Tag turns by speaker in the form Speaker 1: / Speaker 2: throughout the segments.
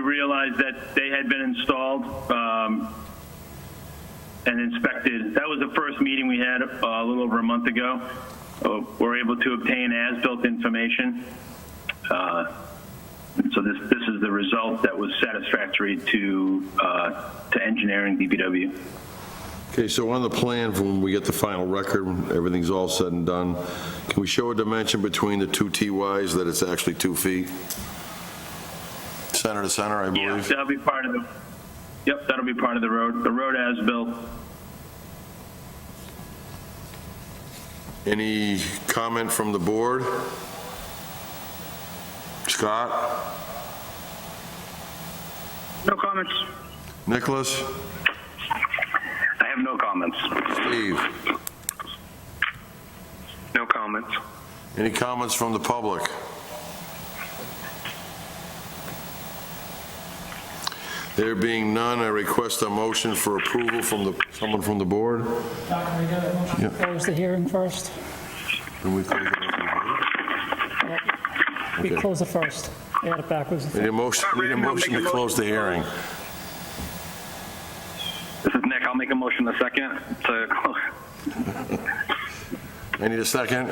Speaker 1: We realized that they had been installed um, and inspected. That was the first meeting we had uh, a little over a month ago. Uh, We're able to obtain as-built information. Uh, So this, this is the result that was satisfactory to, uh, to engineering DPW.
Speaker 2: Okay, so on the plan, from when we get the final record, when everything's all said and done, can we show a dimension between the two TYs that it's actually two feet? Center to center, I
Speaker 1: Yeah,
Speaker 2: believe?
Speaker 1: that'll be part of the, yep, that'll be part of the road, the road as-built.
Speaker 2: Any comment from the board? Scott?
Speaker 3: No comments.
Speaker 2: Nicholas?
Speaker 3: I have no comments.
Speaker 2: Steve?
Speaker 3: No comments.
Speaker 2: Any comments from the public? There being none, I request a motion for approval from the, someone from the board?
Speaker 4: Doctor, we got a motion to
Speaker 2: Yeah.
Speaker 4: close the hearing first.
Speaker 2: Can we close it?
Speaker 4: We
Speaker 2: Okay.
Speaker 4: close it first. We had it backwards.
Speaker 2: Need a motion, need a motion to close the hearing.
Speaker 3: This is Nick. I'll make a motion in a second to,
Speaker 2: I need a second.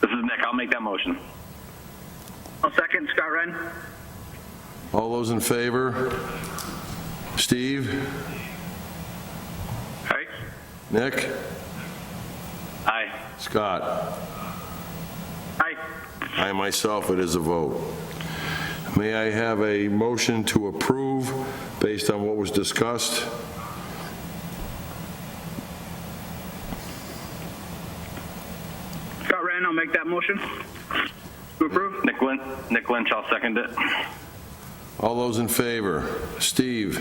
Speaker 3: this is Nick. I'll make that motion.
Speaker 5: I'll second Scott Wren.
Speaker 2: All those in favor? Steve?
Speaker 3: Aye.
Speaker 2: Nick?
Speaker 3: Aye.
Speaker 2: Scott?
Speaker 5: Aye.
Speaker 2: I myself, it is a vote. May I have a motion to approve based on what was discussed?
Speaker 5: Scott Wren, I'll make that motion. To approve?
Speaker 3: Nick Lynch, Nick Lynch, I'll second it.
Speaker 2: All those in favor? Steve?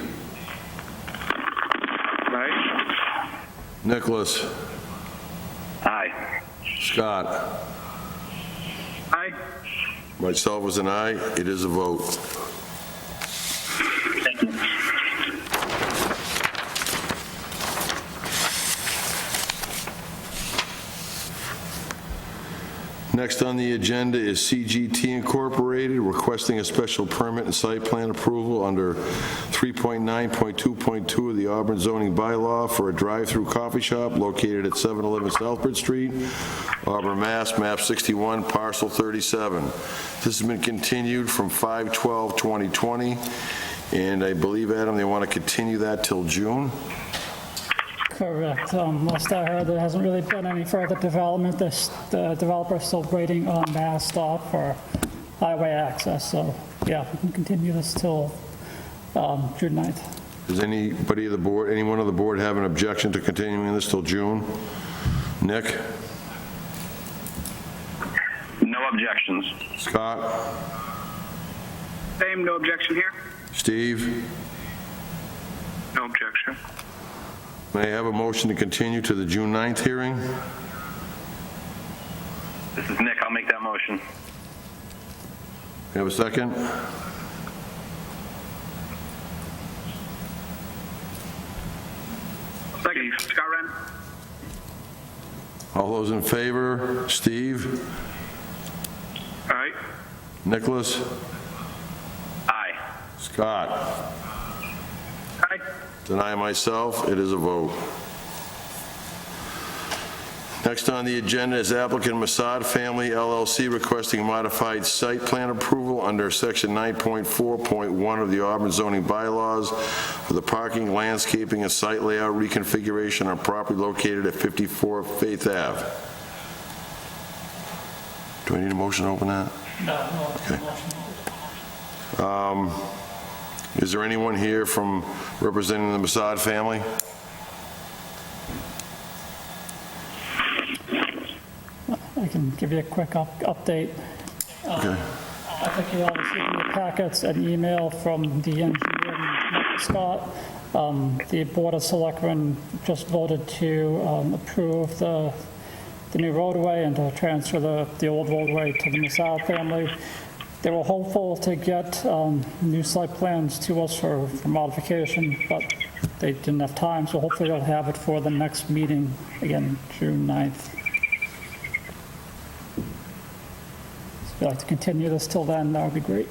Speaker 3: Aye.
Speaker 2: Nicholas?
Speaker 3: Aye.
Speaker 2: Scott?
Speaker 5: Aye.
Speaker 2: Myself is an aye, it is a vote.
Speaker 1: Thank you.
Speaker 2: Next on the agenda is CGT Incorporated requesting a special permit and site plan approval under 3.9.2.2 of the Auburn zoning bylaw for a drive-through coffee shop located at 711 Southbridge Street, Auburn, Mass., map 61, parcel 37. This has been continued from 5/12/2020, and I believe, Adam, they want to continue that till June?
Speaker 4: Correct. Um, Last I heard, there hasn't really been any further development. This- The developer's still waiting on Mass Stop for highway access, so yeah, we can continue this till um, June 9th.
Speaker 2: Does anybody of the board, anyone on the board have an objection to continuing this till June? Nick?
Speaker 3: No objections.
Speaker 2: Scott?
Speaker 5: Same, no objection here.
Speaker 2: Steve?
Speaker 3: No objection.
Speaker 2: May I have a motion to continue to the June 9th hearing?
Speaker 3: This is Nick. I'll make that motion.
Speaker 2: You have a second?
Speaker 5: Second, Scott Wren.
Speaker 2: All those in favor? Steve?
Speaker 3: Aye.
Speaker 2: Nicholas?
Speaker 3: Aye.
Speaker 2: Scott?
Speaker 5: Aye.
Speaker 2: Deny myself, it is a vote. Next on the agenda is applicant Masad Family LLC requesting modified site plan approval under Section 9.4.1 of the Auburn zoning bylaws for the parking, landscaping, and site layout reconfiguration on property located at 54 Faith Ave. Do I need a motion to open that? Is there anyone here from representing the Masad family?
Speaker 4: I can give you a quick up- update.
Speaker 2: Okay.
Speaker 4: I think you all received in your packets an email from the engineer, Mike Scott. Um, The Board of Selectmen just voted to um, approve the, the new roadway and to transfer the, the old roadway to the Masal family. They were hopeful to get um, new site plans to us for for modification, but they didn't have time, so hopefully they'll have it for the next meeting, again, June 9th. you'd like to continue this till then, that would be great.